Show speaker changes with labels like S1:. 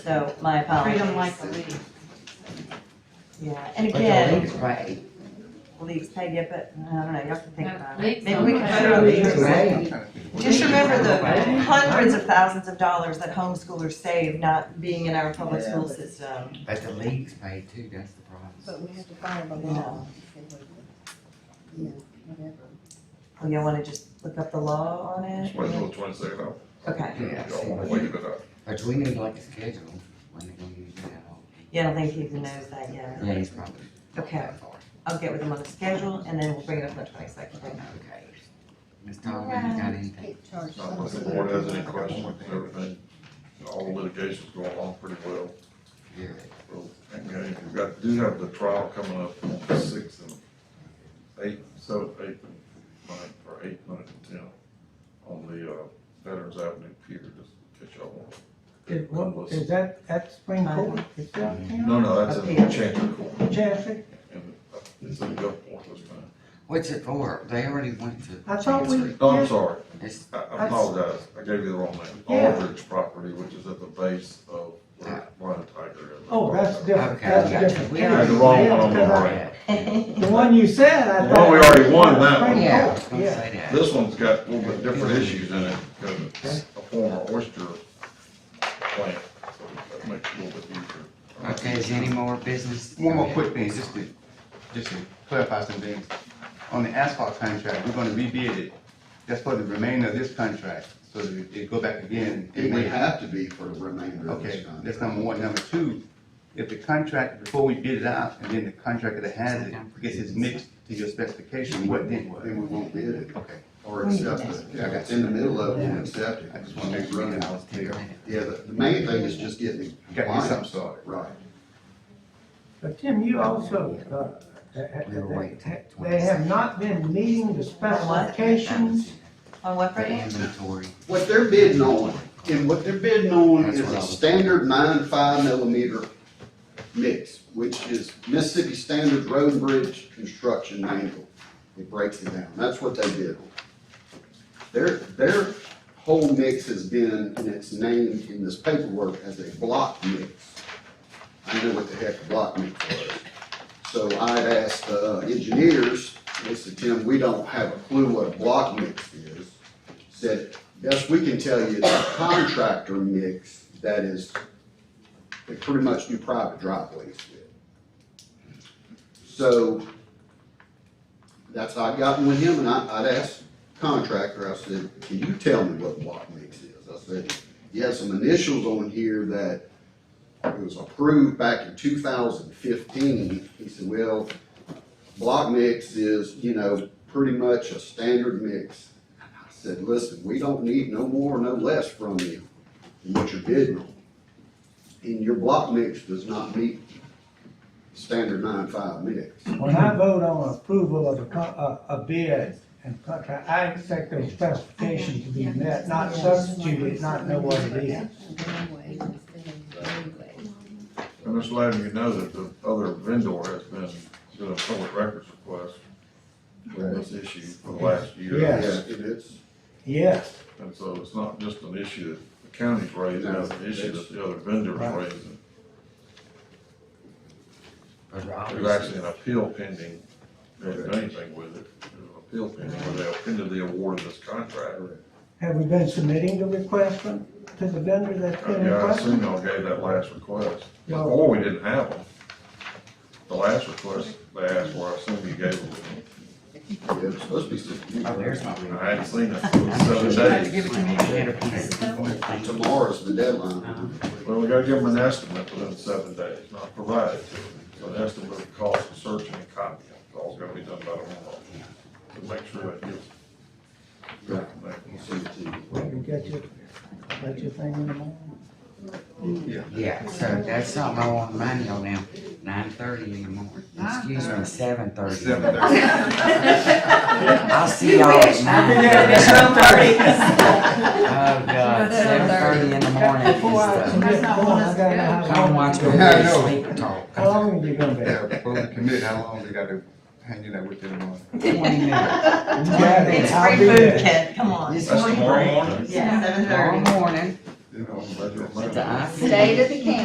S1: So my apologies.
S2: Treat them like a leaf.
S1: Yeah, and
S3: Like a
S1: again,
S3: leaf, right?
S1: leaves pay it, but I don't know, you have to think
S2: No,
S1: about
S2: leaves
S1: it. Maybe
S2: don't
S1: we can
S2: pay.
S1: throw
S3: Leaves,
S1: leaves.
S3: right.
S1: Just remember the
S3: Right.
S1: hundreds of thousands of dollars that homeschoolers save not being in our public
S3: Yeah.
S1: school system.
S3: But the league's paid too, that's the problem.
S4: But we have to follow the law. if we- you know, whatever.
S1: Well, you wanna just look up the law on
S5: Just
S1: it?
S5: wait till the twenty second hour.
S1: Okay,
S3: Yeah,
S5: Y'all wanna wave it up.
S3: but we need like a schedule when they're gonna use that all.
S1: yeah, I don't think he even knows that yet.
S3: Yeah, he's probably. not
S1: Okay.
S3: that far.
S1: I'll get with him on the schedule and then we'll bring it up on the twenty-second.
S3: Okay. Ms. Donovan, you got anything?
S4: It charges
S5: Not unless the board has any questions, and everything, all the litigation's going along pretty well.
S3: You're
S5: So, And we have- we've got, do have the trial coming up on the sixth and eighth, seventh, eighth, and ninth, or eighth, ninth, and tenth, on the, uh, Veterans Avenue Pier, just in case y'all want.
S6: Is, what, is that at Spring Court? Is that
S5: No, no, that's in
S1: Appeal.
S5: Chandler Court,
S6: Chancellor?
S5: and uh, it's in Gulfport this time.
S3: What's it for? They already went to.
S6: I thought we-
S3: Chancery.
S5: No, Oh, I'm sorry,
S3: It's,
S5: I- I apologize, I gave you the wrong name,
S6: Yeah.
S5: Aldridge property, which is at the base of where Lion Tiger is.
S6: Oh, that's different,
S3: okay, I
S6: that's
S3: got you.
S6: different.
S3: We
S5: Yeah,
S3: already
S5: the wrong
S3: went
S5: one, I'm
S3: to
S5: alright.
S3: that.
S6: The one you said, I
S5: The
S6: thought.
S5: one we already won, that one.
S6: Spring
S3: Yeah, I was
S6: Court,
S3: gonna
S6: Yeah,
S3: say that.
S5: This one's got a little bit different issues in it, because it's a former oyster plant, so that makes it a little bit easier.
S3: Okay, is any more business?
S7: One more
S3: Okay.
S7: quick thing, just to, just to clarify some things. On the asphalt contract, we're gonna rebid it. That's for the remainder of this contract, so that it go back again. in
S8: It would
S7: May.
S8: have to be for the remainder of this
S7: Okay,
S8: contract.
S7: that's number one. Number two, if the contract, before we bid it out, and then the contractor that has it gets it mixed to your specification, what then what?
S8: Then we won't bid it
S7: Okay,
S8: or accept it.
S7: Yeah, I got
S8: It's in the middle of it, we'll accept it.
S7: I just wanna make sure that I was clear.
S8: Yeah, the, the main thing is just getting the
S7: Got
S8: compliance.
S7: yourself started.
S8: Right.
S6: but Tim, you also, uh, ha-
S3: We were waiting
S6: ha-
S3: till
S6: they have not been meeting the specifications.
S1: On what
S3: The
S1: Friday?
S3: inventory.
S8: What they're bidding on, and what they're bidding on
S3: That's
S8: is
S3: what I
S8: a
S3: was-
S8: standard nine five millimeter mix, which is Mississippi Standard Road and Bridge Construction Manual. It breaks it down. That's what they bid on. Their, their whole mix has been, and it's named in this paperwork as a block mix. I know what the heck a block mix was. So I'd asked the engineers, they said, Tim, we don't have a clue what a block mix is. Said, best we can tell you, it's a contractor mix that is, they pretty much do private driveways with. So that's how I gotten with him and I, I'd asked contractor, I said, can you tell me what block mix is? I said, you have some initials on here that it was approved back in two thousand fifteen. He said, well, block mix is, you know, pretty much a standard mix. I said, listen, we don't need no more, no less from you than what you're bidding on. And your block mix does not meet standard nine five mix.
S6: When I vote on approval of a, co- a, a bid and contract, I expect those specifications to be met, not substituted, not know what it is.
S4: Anyway, anyway.
S5: And just letting you know that the other vendor has been doing public records requests with this issue for the last year.
S6: Yes.
S8: Yeah, and it's,
S6: Yes,
S5: And so it's not just an issue that the county's raised, it's an issue that the other vendors
S6: Right.
S5: raised.
S3: But
S5: There's actually an appeal pending, There isn't anything with it, there's an appeal pending, where they appended the award of this contract.
S6: have we been submitting the request from, to the vendor that's been
S5: Yeah, I
S6: requested?
S5: assume y'all gave that last request.
S6: No.
S5: Before, we didn't have them. The last request they asked for, I assume you gave them.
S8: yeah, it's supposed to be sixteen.
S3: Oh, there's my ring.
S5: I hadn't seen it for seven days.
S8: Tomorrow's the
S3: Uh-huh.
S8: deadline.
S5: Well, we gotta give them an estimate within seven days, not provided to them. So an estimate of the cost of searching and copying, it's all gonna be done by tomorrow. To make sure that gives.
S8: Right.
S5: Right.
S8: I'll send it to you.
S6: You Get your, get your thing in the morning.
S3: Yeah, so that's something I want money on now, nine thirty in the morning, excuse me, seven thirty.
S7: seven thirty.
S3: I'll see y'all at nine. Oh, God, seven thirty in the morning is
S6: Four hours.
S3: the,
S2: That's not
S6: Come on,
S2: one of
S6: I gotta know
S2: us.
S6: how
S3: come
S6: long-
S3: watch me
S7: Yeah, I know.
S3: sleep talk.
S6: How long are you gonna be?
S7: Yeah, before we commit, how long they gotta hang it out with them uh, on?
S3: Twenty minutes.
S6: You got it.
S1: It's
S6: I'll
S1: free
S6: be
S1: food,
S6: there.
S1: kid, come on.
S3: This
S5: That's
S3: morning.
S5: tomorrow morning?
S1: Yeah, seven
S3: Tomorrow
S1: thirty.
S3: morning,
S5: you know, I'm glad you're-
S3: But the I-
S4: State of the county.